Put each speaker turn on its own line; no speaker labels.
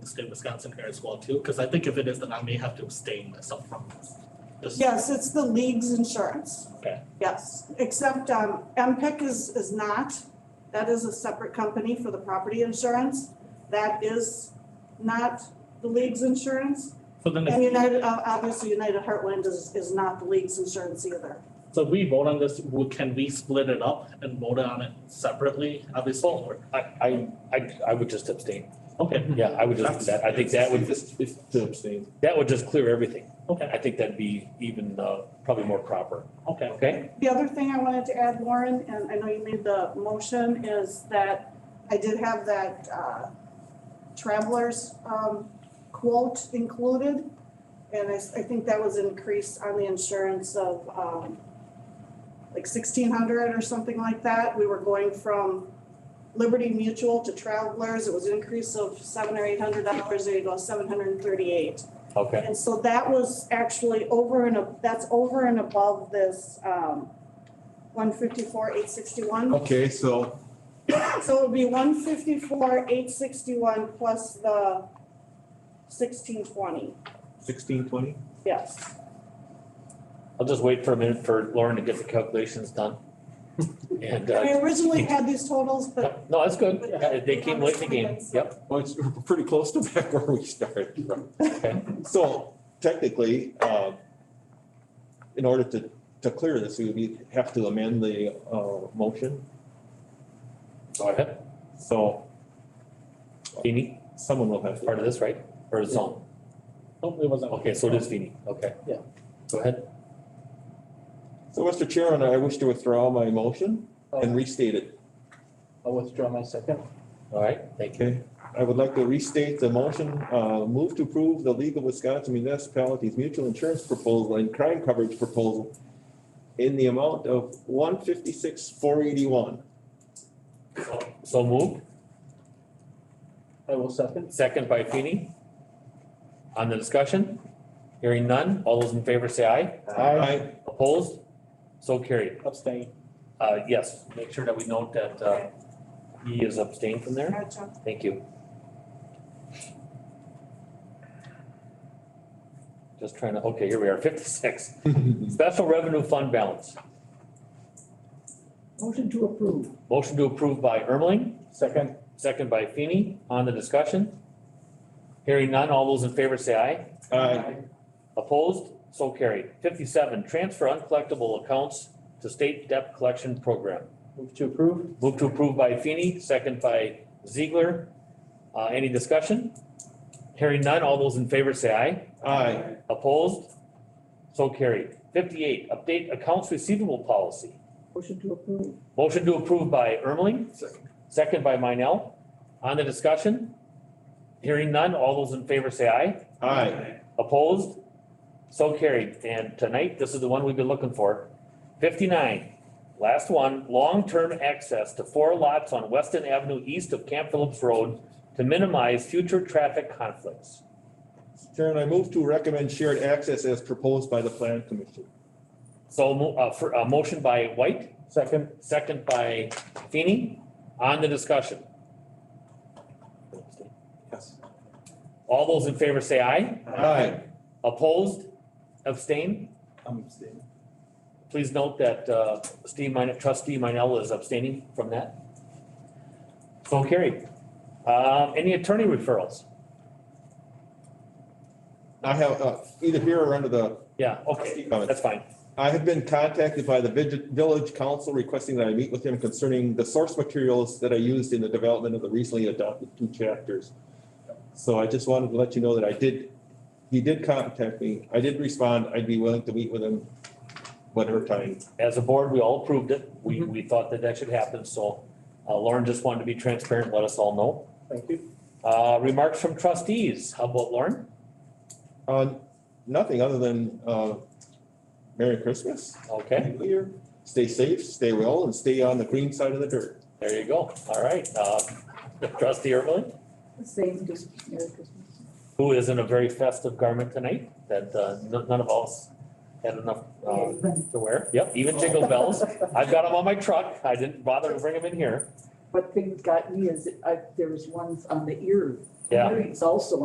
State Wisconsin here as well too, because I think if it is, then I may have to abstain myself from this. Just-
Yes, it's the league's insurance.
Okay.
Yes, except um, MPIC is, is not. That is a separate company for the property insurance. That is not the league's insurance.
So then,
And
if-
United, uh, obviously United Heartland is, is not the league's insurance either.
so if we vote on this, wo- can we split it up and vote on it separately? Obviously, or,
I, I, I, I would just abstain.
okay,
Yeah, I would just, do that, I think that would,
To abstain.
that would just clear everything.
okay,
I think that'd be even, uh, probably more proper,
okay.
okay?
The other thing I wanted to add, Warren, and I know you made the motion, is that I did have that uh, travelers um, quote included. And I, s- I think that was increased on the insurance of um, like sixteen hundred or something like that. We were going from Liberty Mutual to Travelers. It was an increase of seven or eight hundred dollars. There you go, seven hundred and thirty-eight.
Okay,
And so that was actually over and, ab- that's over and above this, um, one fifty-four, eight sixty-one.
Okay, so
So it would be one fifty-four, eight sixty-one plus the sixteen twenty,
sixteen twenty?
yes.
I'll just wait for a minute for Lauren to get the calculations done. And, uh,
I originally had these totals, but
no, that's good, Uh, they came late in the game, yep,
Well, it's pretty close to back where we started. right?
okay,
So technically, uh, in order to, to clear this, we would have to amend the, uh, motion.
go ahead,
So
Feeny,
someone will have
part
to,
of this, right, or zone,
Nope, it wasn't.
okay, so it is Feeny, okay, yeah, go ahead.
so Mr. Chairman, I wish to withdraw my motion and restate it.
I'll withdraw my second.
All right, thank you,
Okay, I would like to restate the motion, uh, move to approve the League of Wisconsin Municipalities Mutual Insurance Proposal and Crime Coverage Proposal in the amount of one fifty-six, four eighty-one.
So- so moved,
I will second.
second by Feeny. On the discussion, hearing none, all those in favor say aye,
Aye.
opposed, so carried.
Abstain.
Uh, yes, make sure that we note that, uh, he is abstained from there.
Gotcha.
Thank you. Just trying to, okay, here we are, fifty-six. Special Revenue Fund Balance.
Motion to approve.
Motion to approve by Ermeling,
Second.
second by Feeny. On the discussion? Hearing none, all those in favor say aye.
Aye.
Opposed? So carried. Fifty-seven, transfer uncollectible accounts to state debt collection program.
Move to approve.
Move to approve by Feeny, second by Ziegler. Uh, any discussion? Hearing none, all those in favor say aye.
Aye.
Opposed? So carried. Fifty-eight, update accounts receivable policy.
Motion to approve.
Motion to approve by Ermeling. Second. by Minell. On the discussion? Hearing none, all those in favor say aye.
Aye.
Opposed? So carried. And tonight, this is the one we've been looking for. Fifty-nine, last one, long-term access to four lots on Weston Avenue east of Camp Phillips Road to minimize future traffic conflicts.
Chairman, I move to recommend shared access as proposed by the Plan Commission.
So, mo- uh, for, a motion by White?
Second.
Second by Feeny. On the discussion.
Yes.
All those in favor say aye.
Aye.
Opposed? Abstain?
I'm abstaining.
Please note that uh, Steve Minor, trustee Minell is abstaining from that. So carried. Um, Any attorney referrals?
I have, uh, either here or under the,
Yeah, okay, that's fine.
I have been contacted by the vig- village council requesting that I meet with him concerning the source materials that I used in the development of the recently adopted two chapters. So I just wanted to let you know that I did, he did contact me. I did respond. I'd be willing to meet with him whatever time.
As a board, we all approved it. We, we thought that that should happen, so uh, Lauren just wanted to be transparent, let us all know.
Thank you.
Uh, Remarks from trustees. How about Lauren?
Uh, nothing other than, uh, Merry Christmas.
Okay.
Happy New Year. Stay safe, stay well, and stay on the green side of the dirt.
There you go. All right. Uh, Trustee Ermeling,
The Same, just Merry Christmas.
who is in a very festive garment tonight that uh, n- none of us had enough uh, to wear. Yep, even jingle bells. I've got them on my truck. I didn't bother to bring them in here.
What thing got me is I, there was ones on the ear.
Yeah.
Earrings also